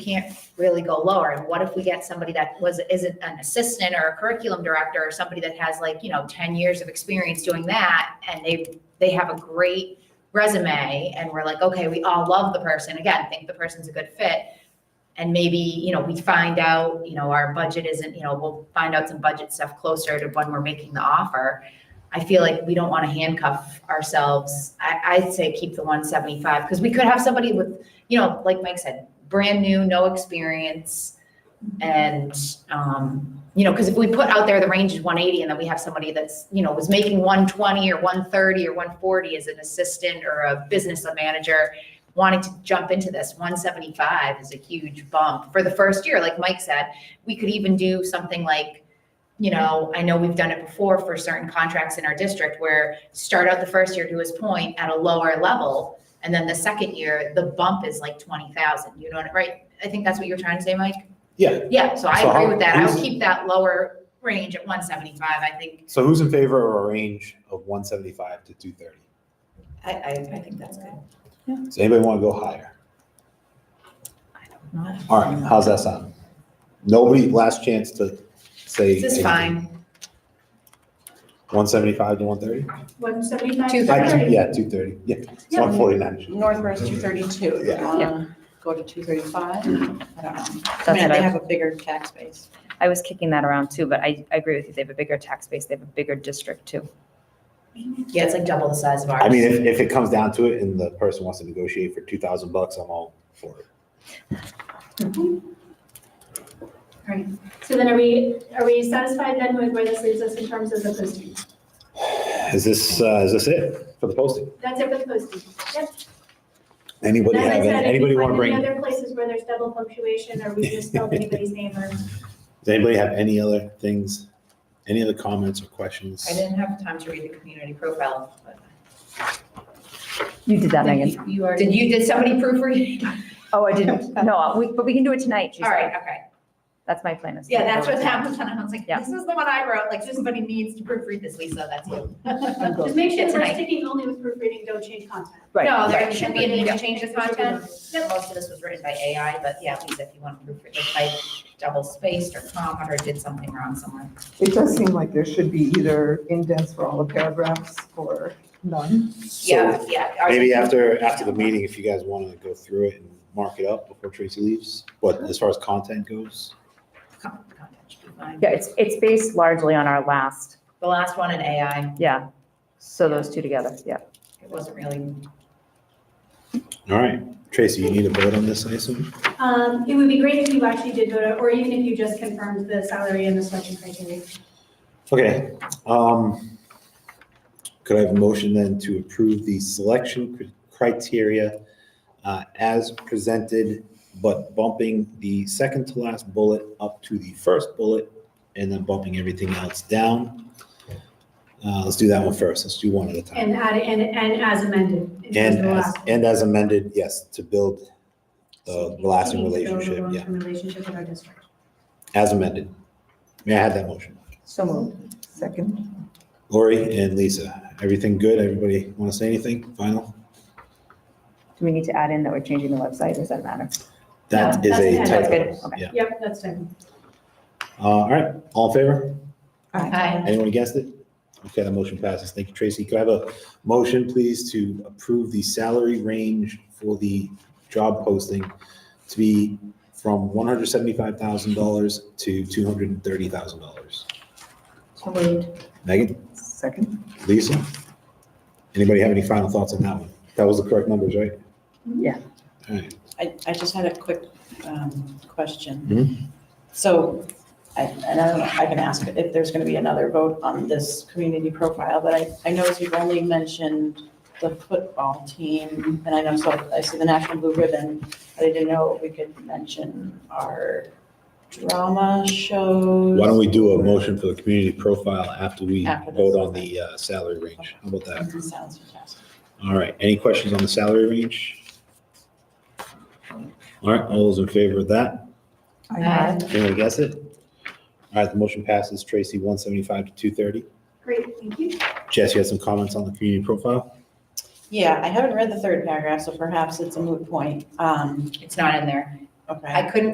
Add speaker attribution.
Speaker 1: can't really go lower. And what if we get somebody that was, isn't an assistant or a curriculum director or somebody that has like, you know, ten years of experience doing that and they, they have a great resume and we're like, okay, we all love the person. Again, think the person's a good fit. And maybe, you know, we find out, you know, our budget isn't, you know, we'll find out some budget stuff closer to when we're making the offer. I feel like we don't want to handcuff ourselves. I, I'd say keep the one seventy-five because we could have somebody with you know, like Mike said, brand new, no experience. And, um, you know, because if we put out there the range is one eighty and then we have somebody that's, you know, was making one twenty or one thirty or one forty as an assistant or a business manager wanting to jump into this, one seventy-five is a huge bump for the first year, like Mike said. We could even do something like, you know, I know we've done it before for certain contracts in our district where start out the first year to his point at a lower level and then the second year, the bump is like twenty thousand, you know what, right? I think that's what you were trying to say, Mike?
Speaker 2: Yeah.
Speaker 1: Yeah, so I
Speaker 2: So
Speaker 1: agree
Speaker 2: how-
Speaker 1: with that. I would
Speaker 2: who's-
Speaker 1: keep that lower range at one seventy-five, I think.
Speaker 2: So who's in favor of a range of one seventy-five to two thirty?
Speaker 1: I, I, I think that's good.
Speaker 2: Does anybody want to go higher? All right, how's that sound? Nobody, last chance to say.
Speaker 1: This is fine.
Speaker 2: One seventy-five to one thirty?
Speaker 3: One seventy-five?
Speaker 4: Two
Speaker 2: Yeah, two thirty, yeah,
Speaker 4: Yeah.
Speaker 2: one forty-nine.
Speaker 4: Northwest two thirty-two,
Speaker 2: Yeah.
Speaker 4: you wanna go to two thirty-five? I don't know. I
Speaker 5: That's
Speaker 4: mean,
Speaker 5: what
Speaker 4: they
Speaker 5: I,
Speaker 4: have a bigger tax base.
Speaker 5: I was kicking that around too, but I, I agree with you. They have a bigger tax base. They have a bigger district too.
Speaker 1: Yeah, it's like double the size of ours.
Speaker 2: I mean, if, if it comes down to it and the person wants to negotiate for two thousand bucks, I'm all for it.
Speaker 3: So then are we, are we satisfied then with where this leaves us in terms of the posting?
Speaker 2: Is this, uh, is this it for the posting?
Speaker 3: That's it for the posting. Yep.
Speaker 2: Anybody
Speaker 3: As I
Speaker 2: have,
Speaker 3: said, if
Speaker 2: any-
Speaker 3: we
Speaker 2: anybody want to
Speaker 3: find
Speaker 2: bring?
Speaker 3: Any other places where there's double punctuation or we just spelled anybody's name or?
Speaker 2: Does anybody have any other things, any other comments or questions?
Speaker 1: I didn't have time to read the community profile. but-
Speaker 5: You did that, Megan.
Speaker 1: You are, did you, did somebody proofread?
Speaker 5: Oh, I didn't. No, we, but we can do it tonight. she
Speaker 1: All right,
Speaker 5: said.
Speaker 1: okay.
Speaker 5: That's my plan. is to
Speaker 1: Yeah,
Speaker 5: do it
Speaker 1: that's what
Speaker 5: tonight.
Speaker 1: happened. And I was like,
Speaker 5: Yeah.
Speaker 1: this is the one I wrote, like somebody needs to proofread this, Lisa, that's you.
Speaker 3: Just make sure
Speaker 1: It's
Speaker 3: we're
Speaker 1: nice.
Speaker 3: sticking only with proofreading, don't change content.
Speaker 5: Right.
Speaker 1: No, there should be a need to change the
Speaker 3: Yeah.
Speaker 1: content. Most of this was written by AI, but yeah, please, if you want to proofread, if I double spaced or comma or did something wrong somewhere.
Speaker 6: It does seem like there should be either indents for all the paragraphs or none.
Speaker 2: So-
Speaker 1: Yeah, yeah. ours-
Speaker 2: Maybe after, after the meeting, if you guys want to go through it and mark it up before Tracy leaves, but as far as content goes,
Speaker 1: Com- Content should be fine.
Speaker 5: Yeah, it's, it's based largely on our last,
Speaker 1: The last one in AI,
Speaker 5: yeah. So those two together, yeah.
Speaker 1: it wasn't really,
Speaker 2: all right. Tracy, you need a vote on this, I assume?
Speaker 3: Um, it would be great if you actually did go to, or even if you just confirmed the salary and the selection criteria.
Speaker 2: Okay, um, could I have a motion then to approve the selection cr- criteria uh, as presented, but bumping the second to last bullet up to the first bullet and then bumping everything else down? Uh, let's do that one first. Let's do one at a time.
Speaker 3: And add, and, and as amended. in terms of
Speaker 2: And
Speaker 3: the
Speaker 2: as,
Speaker 3: last-
Speaker 2: and as amended, yes, to build the lasting
Speaker 3: We need to build a
Speaker 2: relationship, yeah,
Speaker 3: long-term Relationship with our district.
Speaker 2: as amended. May I have that motion?
Speaker 5: So moved.
Speaker 6: Second,
Speaker 2: Lori and Lisa, everything good? Everybody want to say anything final?
Speaker 5: Do we need to add in that we're changing the website? Does that matter?
Speaker 2: That
Speaker 3: No,
Speaker 2: is a
Speaker 3: that's good.
Speaker 2: typo.
Speaker 5: That's good.
Speaker 2: Yeah.
Speaker 3: Yep, that's done.
Speaker 2: Uh, All right, all in favor?
Speaker 1: I,
Speaker 2: Anyone against it? Okay, the motion passes. Thank you, Tracy. Could I have a motion, please, to approve the salary range for the job posting to be from $175,000 to $230,000?
Speaker 1: so moved.
Speaker 2: Megan?
Speaker 6: second.
Speaker 2: Lisa? Anybody have any final thoughts on that one? That was the correct numbers, right?
Speaker 5: Yeah.
Speaker 2: All right,
Speaker 4: I, I just had a quick, um,
Speaker 2: Mhm.
Speaker 4: question. So, I, and I don't know, if I can ask if there's gonna be another vote on this community profile, but I, I noticed you've only mentioned the football team, and I know, so I see the National Blue Ribbon, but I didn't know if we could mention our drama shows.
Speaker 2: why don't we do a motion for the community profile after we
Speaker 4: After this.
Speaker 2: vote on the uh, salary range? How about that?
Speaker 4: Sounds fantastic.
Speaker 2: All right, any questions on the salary range? All right, all those in favor of that?
Speaker 1: Aye.
Speaker 2: Anyone guess it? All right, the motion passes. Tracy, 175 to 230.
Speaker 3: Great, thank you.
Speaker 2: Jess, you had some comments on the community profile?
Speaker 4: Yeah, I haven't read the third paragraph, so perhaps it's a moot point. Um,
Speaker 1: It's not in there.
Speaker 4: Okay.
Speaker 1: I couldn't